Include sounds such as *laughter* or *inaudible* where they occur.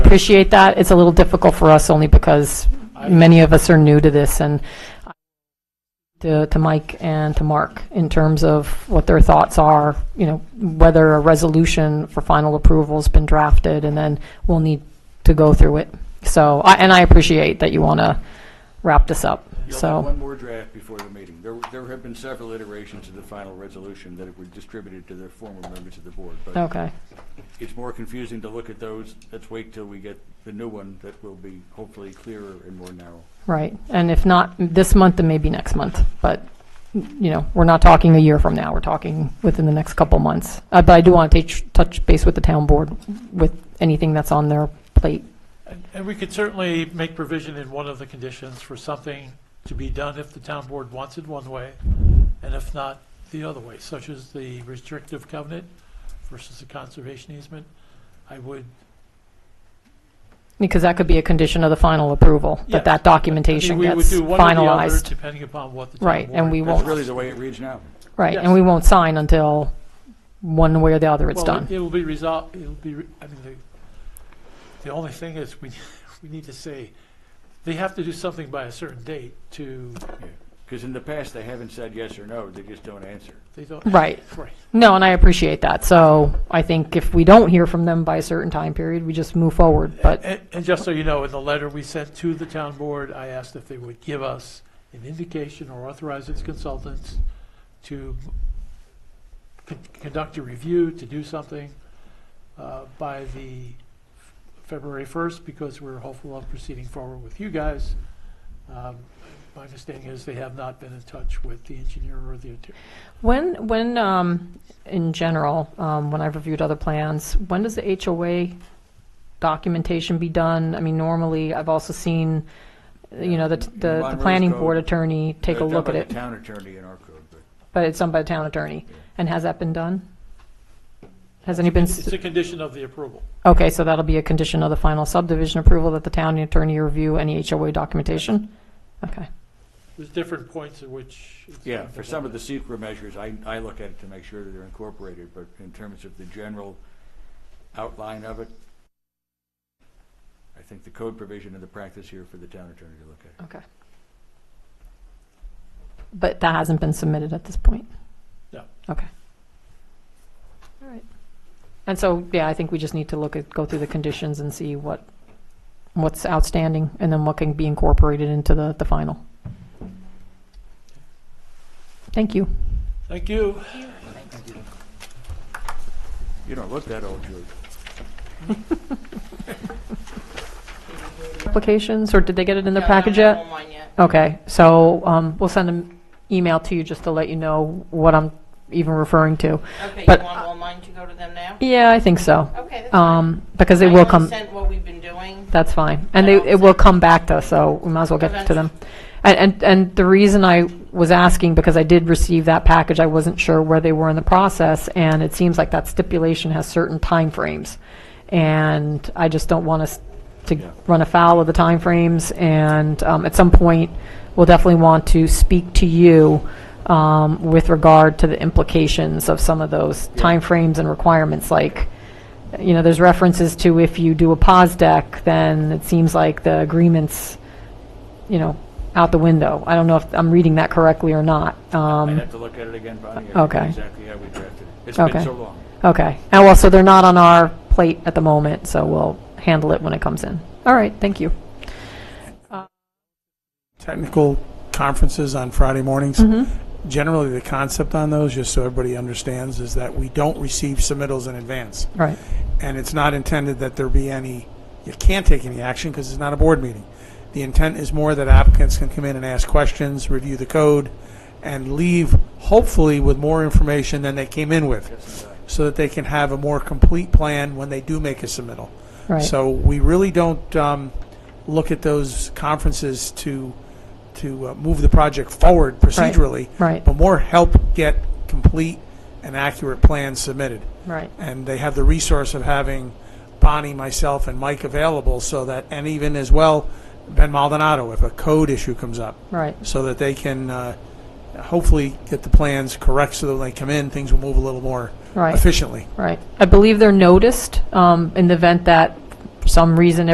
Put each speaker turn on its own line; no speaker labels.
appreciate that. It's a little difficult for us only because many of us are new to this and to, to Mike and to Mark in terms of what their thoughts are, you know, whether a resolution for final approval's been drafted and then we'll need to go through it. So, I, and I appreciate that you want to wrap this up,
You'll
so.
have one more draft before the meeting. There, there have been several iterations of the final resolution that were distributed to the former members of the board, but
Okay,
it's more confusing to look at those. Let's wait till we get the new one that will be hopefully clearer and more narrow.
right. And if not this month, then maybe next month. But, you know, we're not talking a year from now, we're talking within the next couple months. Uh, But I do want to touch base with the town board with anything that's on their plate.
And- And we could certainly make provision in one of the conditions for something to be done if the town board wants it one way, and if not, the other way, such as the restrictive covenant versus the conservation easement. I would,
Because that could be a condition of the final approval,
Yes.
that that
I mean,
documentation
we would
gets
do one or the other,
finalized.
depending upon what the town board.
Right, and we
That's
won't,
really the way it reads now.
right, and
Yes.
we won't sign until one way or the other it's
Well,
done.
It will be resolved, it'll be, re- I mean, the, the only thing is, we, *laughs* we need to say, they have to do something by a certain date to,
Because in the past, they haven't said yes or no, they just don't answer.
they don't.
Right.
Right.
No, and I appreciate that. So I think if we don't hear from them by a certain time period, we just move forward. But,
And, and just so you know, in the letter we sent to the town board, I asked if they would give us an indication or authorize its consultants to con- conduct a review, to do something uh, by the f- February 1st, because we're hopeful of proceeding forward with you guys. Um, My understanding is they have not been in touch with the engineer or the attorney.
When, when, um, in general, um, when I've reviewed other plans, when does the HOA documentation be done? I mean, normally, I've also seen, you know, the, the, the
Monroe's
planning
code.
board attorney take a
They're done
look
by
at
the
it,
Town attorney in our code, but
but it's done by the town attorney.
Yeah.
And has that been done? Has any been,
It's a condition of the approval.
okay, so that'll be a condition of the final subdivision approval that the town attorney review any HOA documentation? Okay,
There's different points at which. it's
Yeah,
been
for some of
developed.
the secret measures, I, I look at it to make sure that they're incorporated, but in terms of the general outline of it, I think the code provision and the practice here for the town attorney to look at.
okay. But that hasn't been submitted at this point?
No.
Okay. All right. And so, yeah, I think we just need to look at, go through the conditions and see what, what's outstanding, and then what can be incorporated into the, the final. Thank you.
Thank you.
You don't look that old, George.
Applications, or did they get it in their
No, I don't
package
have
yet?
online yet.
Okay, so, um, we'll send an email to you just to let you know what I'm even referring to.
Okay,
But-
you want online to go to them now?
Yeah, I think so,
Okay, that's fine.
um, because they
I
will
only
come.
sent what we've been doing.
That's fine. And
I
they,
don't
it will
think-
come back to us, so we might as well get to
Eventually.
them. And, and, and the reason I was asking, because I did receive that package, I wasn't sure where they were in the process, and it seems like that stipulation has certain timeframes. And I just don't want us to
Yeah.
run afoul of the timeframes, and um, at some point, we'll definitely want to speak to you um, with regard to the implications of some of those timeframes and requirements, like, you know, there's references to if you do a pause deck, then it seems like the agreement's, you know, out the window. I don't know if I'm reading that correctly or not.
I'd
Um,
have to look at it again, Bonnie. I forget
Okay.
Exactly how we drafted it. It's been
Okay.
so long.
Okay. And well, so they're not on our plate at the moment, so we'll handle it when it comes in. All right, thank you.
technical conferences on Friday mornings.
Mhm.
Generally, the concept on those, just so everybody understands, is that we don't receive submittals in advance.
All right.
And it's not intended that there be any, you can't take any action because it's not a board meeting. The intent is more that applicants can come in and ask questions, review the code, and leave hopefully with more information than they came in with, so that they can have a more complete plan when they do make a submittal.
Right.
So we really don't um, look at those conferences to, to uh, move the project forward procedurally,
Right.
but more help get complete and accurate plans submitted.
Right.
And they have the resource of having Bonnie, myself, and Mike available so that, and even as well, Ben Maldonado, if a code issue comes up,
Right.
so that they can uh, hopefully get the plans correct so that when they come in, things will move a little more
Right.
efficiently.
Right. I believe they're noticed um, in the event that some reason